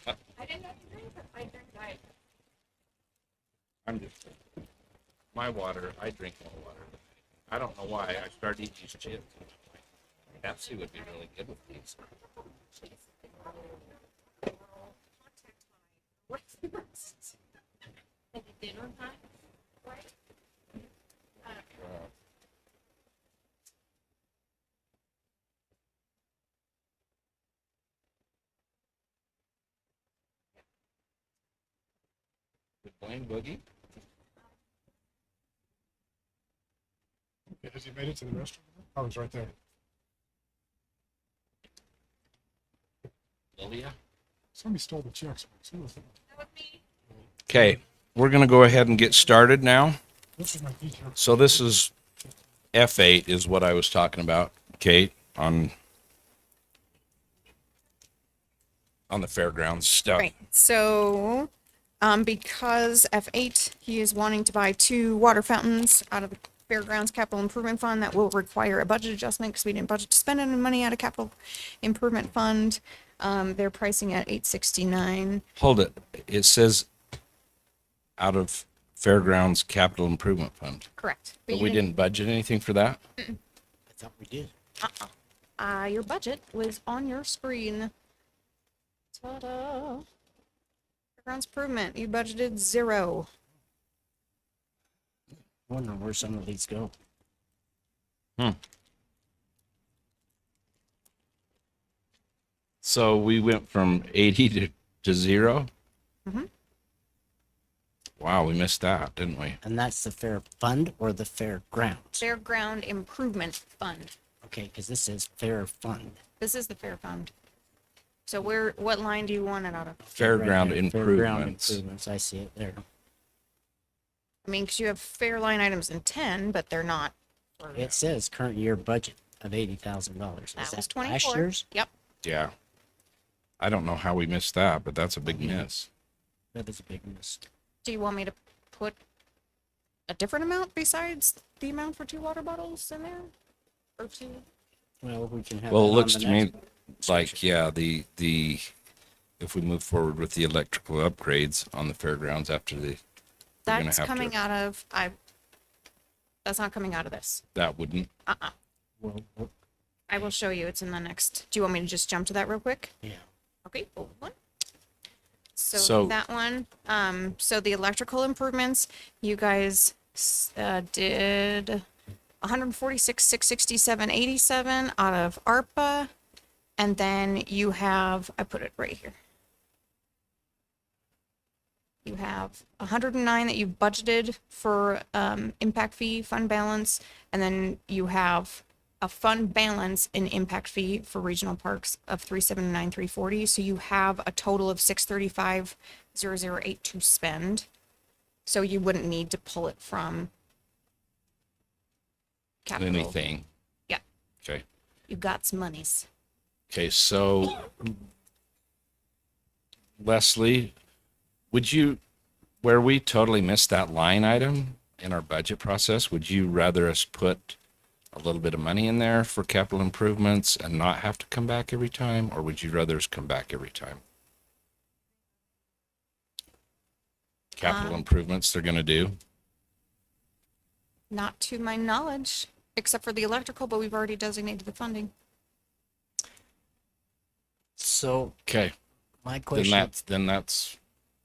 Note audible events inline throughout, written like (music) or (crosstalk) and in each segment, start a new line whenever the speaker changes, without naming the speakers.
I didn't have to drink, I drink diet.
I'm just my water. I drink more water. I don't know why. I started eating these chips. Pepsi would be really good with these.
What's the rest? Like a dinner time? Right?
Uh, Did Blaine Boogie?
Has he made it to the restaurant? Oh, he's right there.
Lilia?
Somebody stole the checks. Who was that?
That would be
Okay, we're going to go ahead and get started now.
This is my detail.
So this is F8 is what I was talking about, Kate, on on the fairgrounds stuff.
Right, so, um, because F eight, he is wanting to buy two water fountains out of the Fairgrounds Capital Improvement Fund. That will require a budget adjustment because we didn't budget to spend any money out of capital improvement fund. Um, they're pricing at eight sixty-nine.
Hold it. It says out of fairgrounds capital improvement fund.
Correct.
But
you
we didn't budget anything for that?
I thought we did.
Uh, your budget was on your screen. Ta-da. Fairgrounds improvement, you budgeted zero.
Wondering where some of these go.
So we went from 80 to, to 0
Mhm.
Wow, we missed that, didn't we?
And that's the fair fund or the fair grounds?
Fairground Improvement Fund.
Okay, because this is fair fund.
This is the fair fund. So where, what line do you want it out of?
Fairground
Right there, Fairground
improvements.
improvements, I see it there.
I mean, because you have fair line items in ten, but they're not. for-
It says current year budget of eighty thousand dollars. Is
That was
that last
twenty-four.
year's?
Yep,
Yeah. I don't know how we missed that, but that's a big
Mm-hmm.
miss.
That is a big miss.
do you want me to put a different amount besides the amount for two water bottles in there? Or two?
Well, we can have.
Well,
that
it
on
looks
the
to me
next-
like, yeah, the, the, if we move forward with the electrical upgrades on the fairgrounds after the, We're gonna
That's
have to-
coming out of, I, that's not coming out of this.
that wouldn't,
Uh-uh.
Well, well,
I will show you. It's in the next, do you want me to just jump to that real quick?
yeah.
Okay, hold on. So
So-
that one, um, so the electrical improvements, you guys, s- uh, did hundred and forty-six, six sixty-seven, eighty-seven out of ARPA. And then you have, I put it right here. You have hundred and nine that you've budgeted for, um, impact fee, fund balance, and then you have a fund balance in impact fee for regional parks of three seven nine three forty. So you have a total of six thirty five zero zero eight to spend. So you wouldn't need to pull it from capital.
anything.
Yeah.
Okay.
You've got some monies.
Okay, so Leslie, would you, where we totally missed that line item in our budget process, would you rather us put a little bit of money in there for capital improvements and not have to come back every time, or would you rather us come back every time? Capital
Um,
improvements they're gonna do?
Not to my knowledge, except for the electrical, but we've already designated the funding.
So
Okay,
my
then
question,
that's, then that's,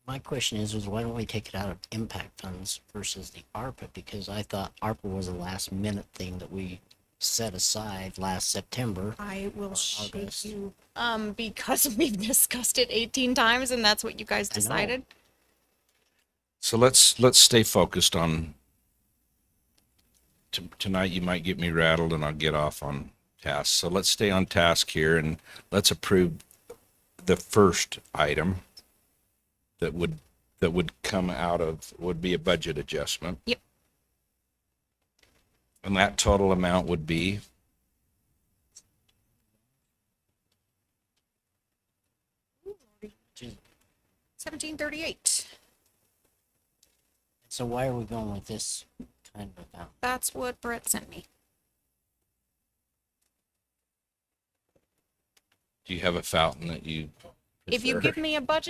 my question is, is why don't we take it out of impact funds versus the ARPA? Because I thought ARPA was a last minute thing that we set aside last September.
I will show
August.
you. Um, because (laughs) we've discussed it eighteen times and that's what you guys
I know.
decided.
so let's, let's stay focused on t- tonight you might get me rattled and I'll get off on task. So let's stay on task here and let's approve the first item that would that would come out of would be a budget adjustment.
Yep.
And that total amount would be
Seventeen thirty-eight.
So why are we going with this kind of amount?
That's what Brett sent me.
do you have a fountain that you
If you
Sure.
give me a budget